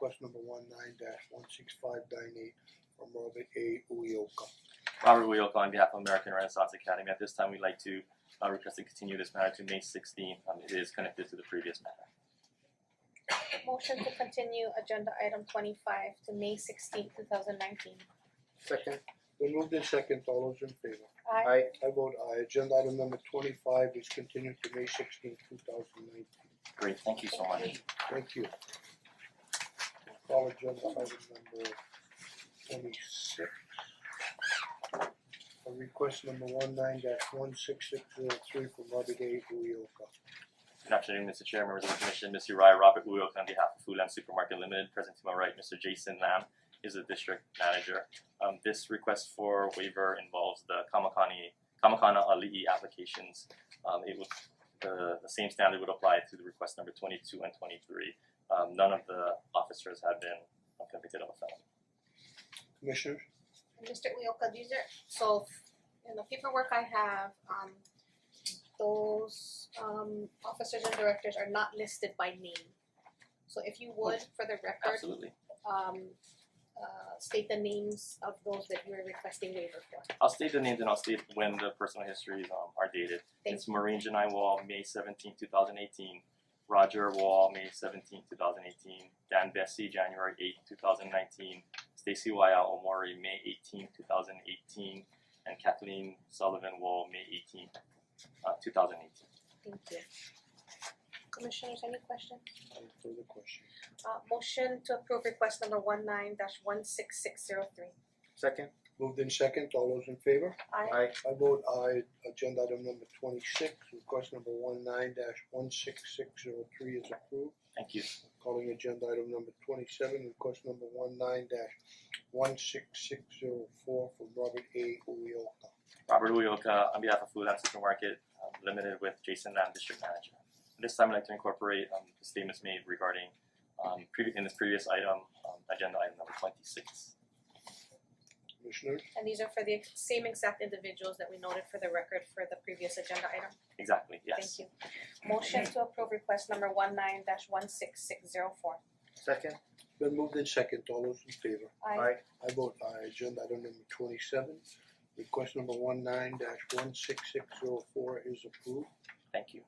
request number one nine dash one six five nine eight from Robert A. Uyoka. Robert Wilk on behalf of American Renaissance Academy. At this time, we'd like to uh, request to continue this matter to May 16. Um, it is connected to the previous matter. Motion to continue agenda item twenty five to May sixteenth, two thousand nineteen. Second, Then moved in second, all those in favor? Aye. aye. I vote aye, agenda item number twenty five is continued to May sixteenth, two thousand nineteen. Great, thank you so Thank much. you. Thank you. Call agenda item number twenty six. A request number one nine dash one six six zero three from Robert A. Uyoka. Good afternoon, Mr. Chair, members of the commission, Ms. Uriah Robert Wilk on behalf of Foodland Supermarket Limited. Present to my right, Mr. Jason Lam is the district manager. Um, this request for waiver involves the Kamakani Kamakana Ali'i applications. Um, it would the, the same standard would apply to the request number twenty-two and twenty-three. Um, none of the officers have been convicted of a felony. Commissioners, And Mister Uyoka, these are, so in the paperwork I have, um those um officers and directors are not listed by name. So if you would, for the record, Absolutely. um uh state the names of those that you're requesting waiver for. I'll state the names and I'll state when the personal histories um are dated. Thank It's Maureen Janai Wall, May seventeenth, two thousand eighteen. Roger Wall, May seventeenth, two thousand eighteen. Dan Bessie, January eighth, two thousand nineteen. Stacy Waya Omori, May eighteenth, two thousand eighteen. And Kathleen Sullivan Wall, May eighteenth, uh two thousand eighteen. Thank you. Commissioners, any questions? any further questions? Uh motion to approve request number one nine dash one six six zero three. Second, Moved in second, all those in favor? Aye. aye. I vote aye, agenda item number twenty six, request number one nine dash one six six zero three is approved. Thank you. Calling agenda item number twenty seven, request number one nine dash one six six zero four from Robert A. Uyoka. Robert Uyoka on behalf of Foodland Supermarket um, Limited with Jason Lam, District Manager. This time I'd like to incorporate um the statements made regarding um previ- in this previous item, um agenda item number twenty six. Commissioners, And these are for the ex- same exact individuals that we noted for the record for the previous agenda item. Exactly, yes. Thank you. Motion to approve request number one nine dash one six six zero four. Second, been moved in second, all those in favor? aye. I vote aye, agenda item number twenty seven, request number one nine dash one six six zero four is approved. Thank you.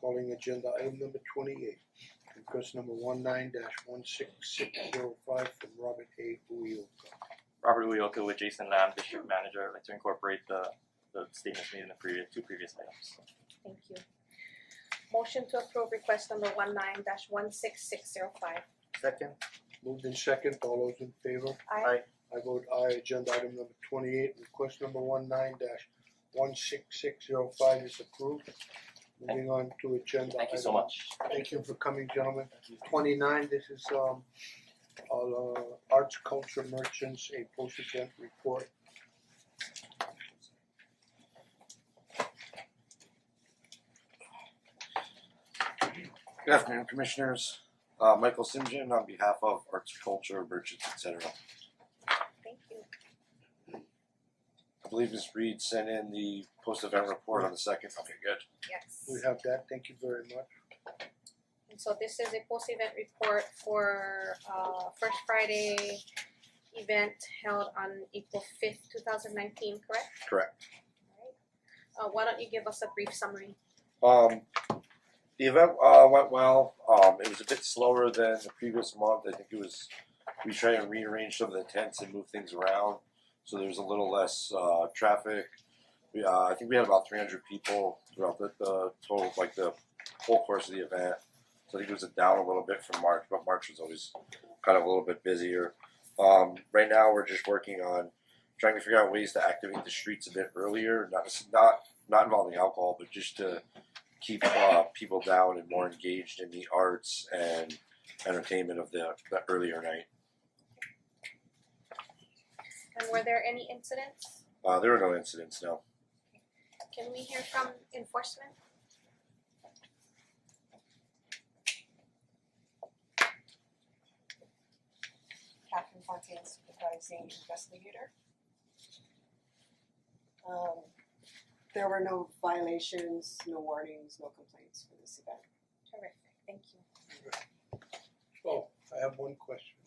Calling agenda item number twenty-eight, request number one nine dash one six six zero five from Robert A. Uyoka. Robert Uyoka with Jason Lam, District Manager, I'd like to incorporate the the statements made in the previous two previous items. Thank you. Motion to approve request number one nine dash one six six zero five. Second, Moved in second, all those in favor? Aye. Aye. I vote aye, agenda item number twenty-eight, request number one nine dash one six six zero five is approved. Moving on to agenda item. Thank you so much. Thank you for coming, gentlemen. Twenty-nine, this is um uh Arts Culture Merchants, a post-event report. Good afternoon, Commissioners. Uh, Michael Simjian on behalf of Arts, Culture, Merchants, etc. Thank you. I believe Ms. Reed sent in the post-event report on the second. Okay, good. Yes. We have that, thank you very much. And so this is a post-event report for uh First Friday event held on April fifth, two thousand nineteen, correct? Correct. Alright. Uh why don't you give us a brief summary? Um, the event uh, went well. Um, it was a bit slower than the previous month. I think it was we tried to rearrange some of the tents and move things around, so there was a little less uh, traffic. We, uh, I think we had about 300 people throughout the, the total, like the whole course of the event. So I think it was down a little bit from March, but March was always kind of a little bit busier. Um, right now, we're just working on trying to figure out ways to activate the streets a bit earlier, not not not involving alcohol, but just to keep uh, people down and more engaged in the arts and entertainment of the, the earlier night. And were there any incidents? Uh, there were no incidents, no. Can we hear from enforcement? Catherine Fontaine, supervising investigator. Um, there were no violations, no warnings, no complaints for this event. Terrific, thank you. So, Oh, I have one question.